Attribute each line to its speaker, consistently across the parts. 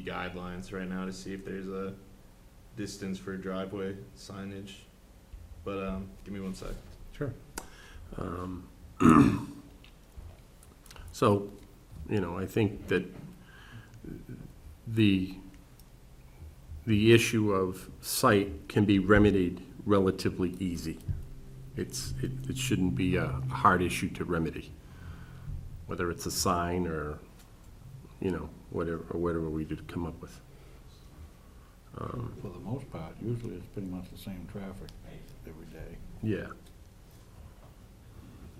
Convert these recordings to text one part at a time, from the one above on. Speaker 1: DOT guidelines right now to see if there's a distance for driveway signage. But, um, give me one sec.
Speaker 2: Sure. Um, So, you know, I think that the, the issue of site can be remedied relatively easy. It's, it, it shouldn't be a hard issue to remedy, whether it's a sign or, you know, whatever, or whatever we did come up with.
Speaker 3: For the most part, usually it's pretty much the same traffic every day.
Speaker 2: Yeah.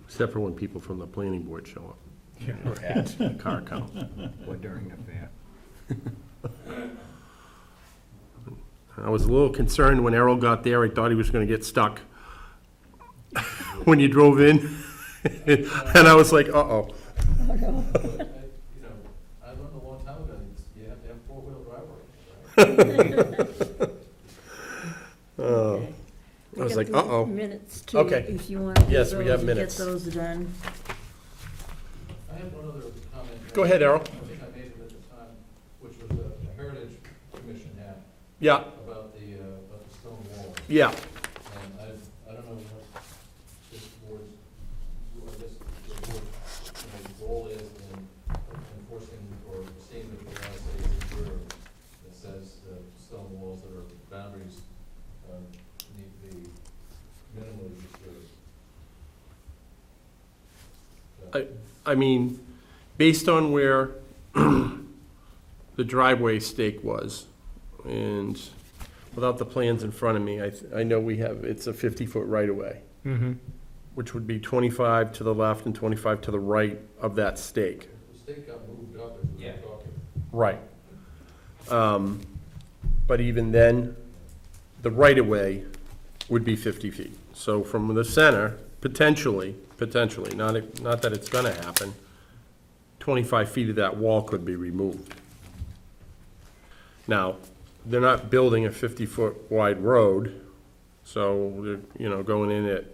Speaker 2: Except for when people from the planning board show up. Yeah. Car count.
Speaker 3: Or during the fair.
Speaker 2: I was a little concerned when Errol got there, I thought he was gonna get stuck when you drove in. And I was like, uh-oh,
Speaker 4: You know, I learned a long time ago, it's- you have to have four-wheel drive right now, right?
Speaker 2: Oh, I was like, uh-oh.
Speaker 5: Minutes too,
Speaker 2: Okay.
Speaker 5: if you want to get
Speaker 2: Yes, we have
Speaker 5: those, get
Speaker 2: minutes.
Speaker 5: those done.
Speaker 4: I have one other comment. that
Speaker 2: Go ahead, Errol.
Speaker 4: I think I made it at the time, which was the the Heritage Commission had
Speaker 2: yeah,
Speaker 4: about the, uh, about the stone wall.
Speaker 2: yeah,
Speaker 4: And I, I don't know what this board's, what this, the board's, you know, role is in enforcing or seeing that the United States is clear that says that stone walls that are boundaries, uh, need to be minimally disturbed. So-
Speaker 2: I mean, based on where the driveway stake was, and without the plans in front of me, I, th- I know we have, it's a fifty-foot right-of-way.
Speaker 1: Mm-hmm.
Speaker 2: which would be 25 to the left and 25 to the right of that stake.
Speaker 4: The stake got moved up as we were talking.
Speaker 2: Right. Um, But even then, the right-of-way would be 50 feet. So from the center, potentially, potentially, not, it- not that it's going to happen, 25 feet of that wall could be removed. Now, they're not building a 50-foot wide road, so, they're, you know, going in at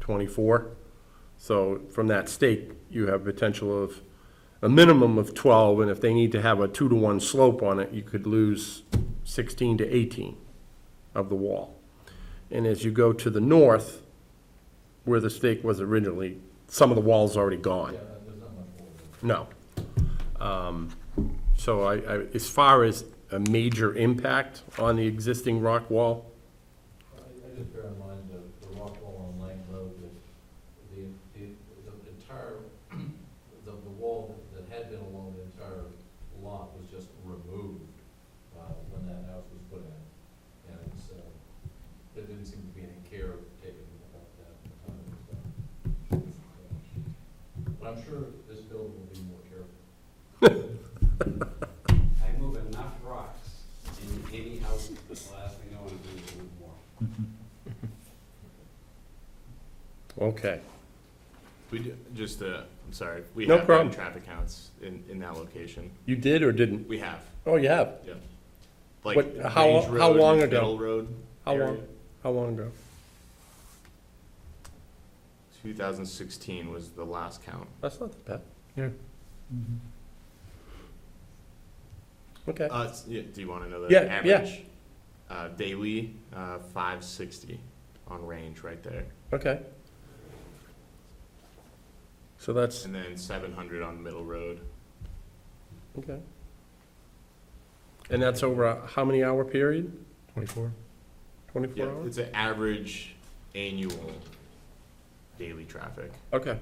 Speaker 2: 24. So from that stake, you have potential of a minimum of 12, and if they need to have a two-to-one slope on it, you could lose 16 to 18 of the wall. And as you go to the north, where the stake was originally, some of the wall's already gone.
Speaker 4: Yeah, there's not much more. there.
Speaker 2: No. Um, So I, I, as far as a major impact on the existing rock wall,
Speaker 4: I, I just bear in mind the, the rock wall on Lane Road, that the, the, the entire, the, the wall that had been along the entire lot was just removed, uh, when that house was put in. And it's, uh, there didn't seem to be any care taken about that at the time. it was done. But I'm sure this building will be more careful.
Speaker 6: I move enough rocks in any house, the last thing I wanna do is move more.
Speaker 2: okay.
Speaker 1: We do, just, uh, I'm sorry, we
Speaker 2: No
Speaker 1: have
Speaker 2: problem.
Speaker 1: done traffic counts in, in that location.
Speaker 2: You did or didn't?
Speaker 1: We have,
Speaker 2: Oh, you have?
Speaker 1: yeah. Like
Speaker 2: What- how-
Speaker 1: Range
Speaker 2: how
Speaker 1: Road and
Speaker 2: long ago?
Speaker 1: Middle Road
Speaker 2: How long,
Speaker 1: area.
Speaker 2: how long ago?
Speaker 1: 2016 was the last count.
Speaker 2: That's not that bad. Okay.
Speaker 1: Uh, s- yeah, do you want to know the
Speaker 2: Yeah, yeah.
Speaker 1: average? Uh, daily, uh, 560 on range right there,
Speaker 2: Okay. So that's,
Speaker 1: and then 700 on Middle Road.
Speaker 2: okay. And that's over a, how many hour period? Twenty-four.
Speaker 1: Yeah,
Speaker 2: Twenty-four hours?
Speaker 1: it's an average annual daily traffic.
Speaker 2: Okay,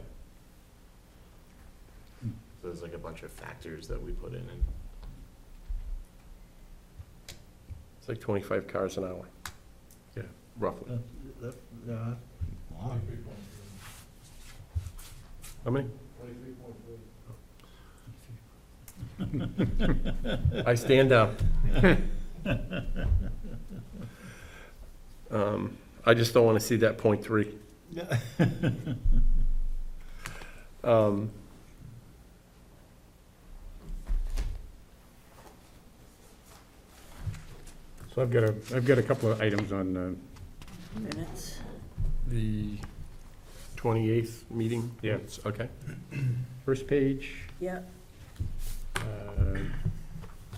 Speaker 1: So there's like a bunch of factors that we put in, and
Speaker 2: it's like twenty-five cars an hour.
Speaker 1: Yeah.
Speaker 2: Roughly.
Speaker 3: That, that, wow.
Speaker 4: Twenty-three point three.
Speaker 2: How many?
Speaker 4: Twenty-three point three.
Speaker 2: I stand down. Um, I just don't want to see that point three. Um,
Speaker 7: So I've got a, I've got a couple of items on uh,
Speaker 5: Minutes.
Speaker 2: The twenty-eighth meeting?
Speaker 7: Yeah.
Speaker 2: It's- Okay.
Speaker 7: first page.
Speaker 5: Yep.
Speaker 7: uh,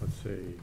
Speaker 7: Let's
Speaker 2: see.